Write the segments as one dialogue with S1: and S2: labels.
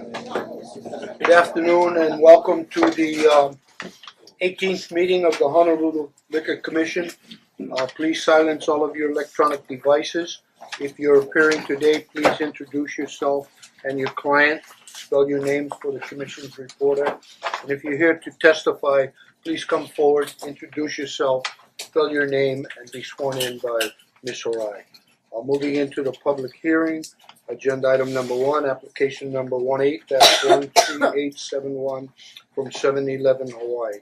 S1: Good afternoon and welcome to the um, 18th meeting of the Honolulu Liquor Commission. Uh, Please silence all of your electronic devices. If you're appearing today, please introduce yourself and your client, spell your name for the commission's reporter. And if you're here to testify, please come forward, introduce yourself, spell your name, and be sworn in by Ms. Harai. Uh, Moving into the public hearing, Agenda item number one, application number one eight dash one three eight seven one from seven eleven Hawaii.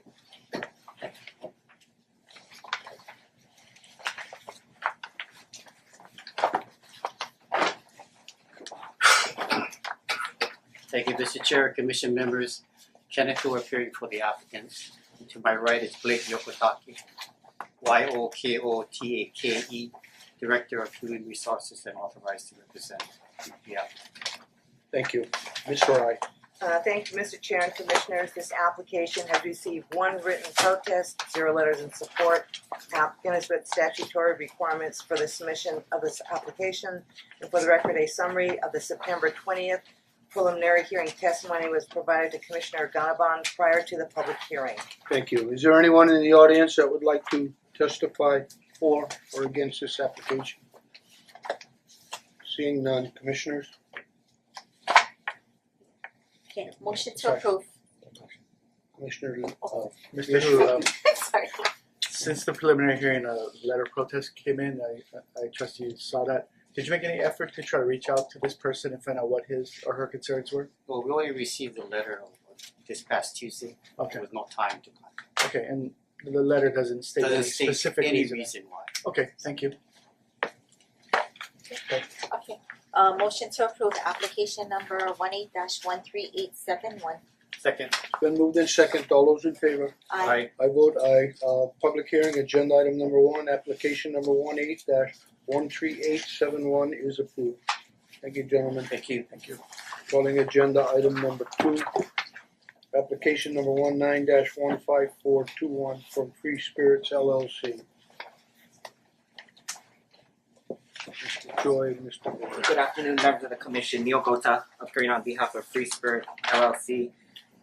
S2: Thank you, Mr. Chair, Commission members. Kenneth Wu appearing for the applicants. To my right is Blake Yokotake, Y O K O T A K E, Director of Human Resources and authorized to represent the applicant.
S1: Thank you. Ms. Harai,
S3: Uh, thank you, Mr. Chair and Commissioners. This application has received one written protest, zero letters in support. Applicant has met statutory requirements for the submission of this application. And for the record, a summary of the September twentieth preliminary hearing testimony was provided to Commissioner Ganabon prior to the public hearing.
S1: thank you. Is there anyone in the audience that would like to testify for or against this application? Seeing none, commissioners?
S4: Okay, motion to
S1: Sorry.
S4: approve.
S1: Commissioner,
S4: Oh.
S5: Mr. Hu, um,
S4: Sorry.
S5: since the preliminary hearing, a letter of protest came in, I I trust you saw that. Did you make any effort to try to reach out to this person and find out what his or her concerns were?
S2: Well, we only received the letter on this past Tuesday.
S5: Okay,
S2: There was no time to contact.
S5: okay, and the letter doesn't state any
S2: Doesn't state
S5: specific
S2: any
S5: reason.
S2: reason why.
S5: Okay, thank you.
S4: Okay, uh motion to approve application number one eight dash one three eight seven one.
S2: Second.
S1: it's been moved in second. All those in favor?
S4: I
S1: I vote aye. Uh, public hearing, agenda item number one, application number one eight dash one three eight seven one is approved. Thank you, gentlemen.
S2: Thank you.
S1: Thank you. Calling agenda item number two. Application number one nine dash one five four two one from Free Spirits LLC. Mr. Choi, Mr. Moore.
S6: Good afternoon, members of the commission. Neil Gota, appearing on behalf of Free Spirit LLC.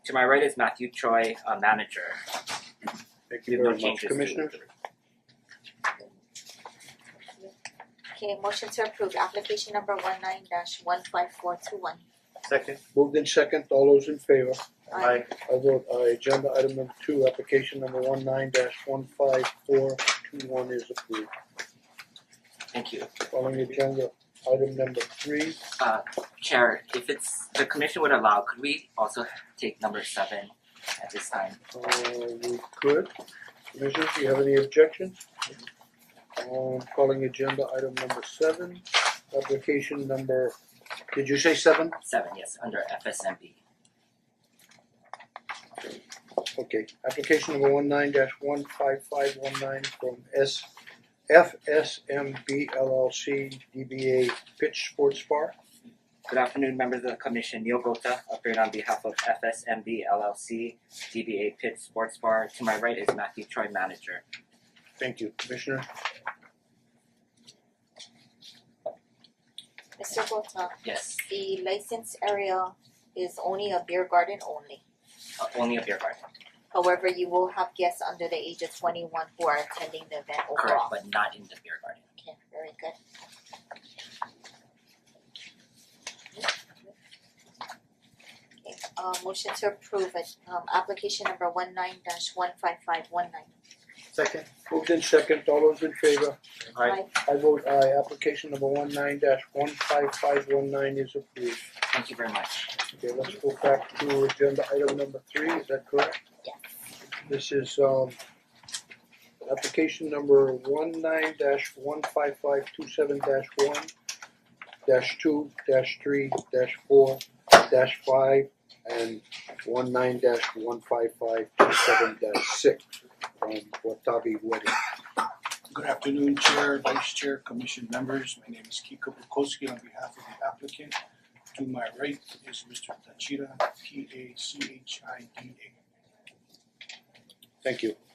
S6: To my right is Matthew Choi, a manager.
S1: Thank
S6: We
S1: you
S6: have no
S1: very much,
S6: changes to-
S1: Commissioners.
S4: Okay, motion to approve application number one nine dash one five four two one.
S5: Second.
S1: Moved in second, all those in favor?
S4: Aye.
S1: I vote aye. Agenda item number two, application number one nine dash one five four two one is approved.
S6: Thank you.
S1: Calling agenda item number three.
S6: Chair, if it's, the commission would allow, could we also take number seven at this time?
S1: Uh we could. Commissioners, do you have any objections? Um calling agenda item number seven, application number, did you say seven?
S6: Seven, yes, under FSMB.
S1: Okay, application number one nine dash one five five one nine from S F S M B L L C D B A Pitch Sports Bar.
S6: Good afternoon, members of the commission. Neil Gota, appearing on behalf of FSMB LLC, DBA Pitt Sports Bar. To my right is Matthew Choi, manager.
S1: Thank you, Commissioner.
S4: Mister Gota,
S6: Yes,
S4: the license area is only a beer garden only.
S6: uh, only a beer garden,
S4: However, you will have guests under the age of twenty one who are attending the event
S6: correct,
S4: overall.
S6: but not in the beer garden.
S4: Okay, very good. Okay, uh motion to approve it, um application number one nine dash one five five one nine.
S5: Second.
S1: Moved in second, all those in favor?
S4: Aye.
S1: I vote aye. Application number one nine dash one five five one nine is approved.
S6: Thank you very much.
S1: Okay, let's go back to agenda item number three, is that correct?
S4: Yes.
S1: This is um application number one nine dash one five five two seven dash one dash two dash three dash four dash five and one nine dash one five five two seven dash six from Watabi Wedding.
S7: Good afternoon, Chair, Vice Chair, Commission members. My name is Kiko Bukowski on behalf of the applicant. To my right is Mr. Tachida, T A E. C H I D A.
S1: Thank you.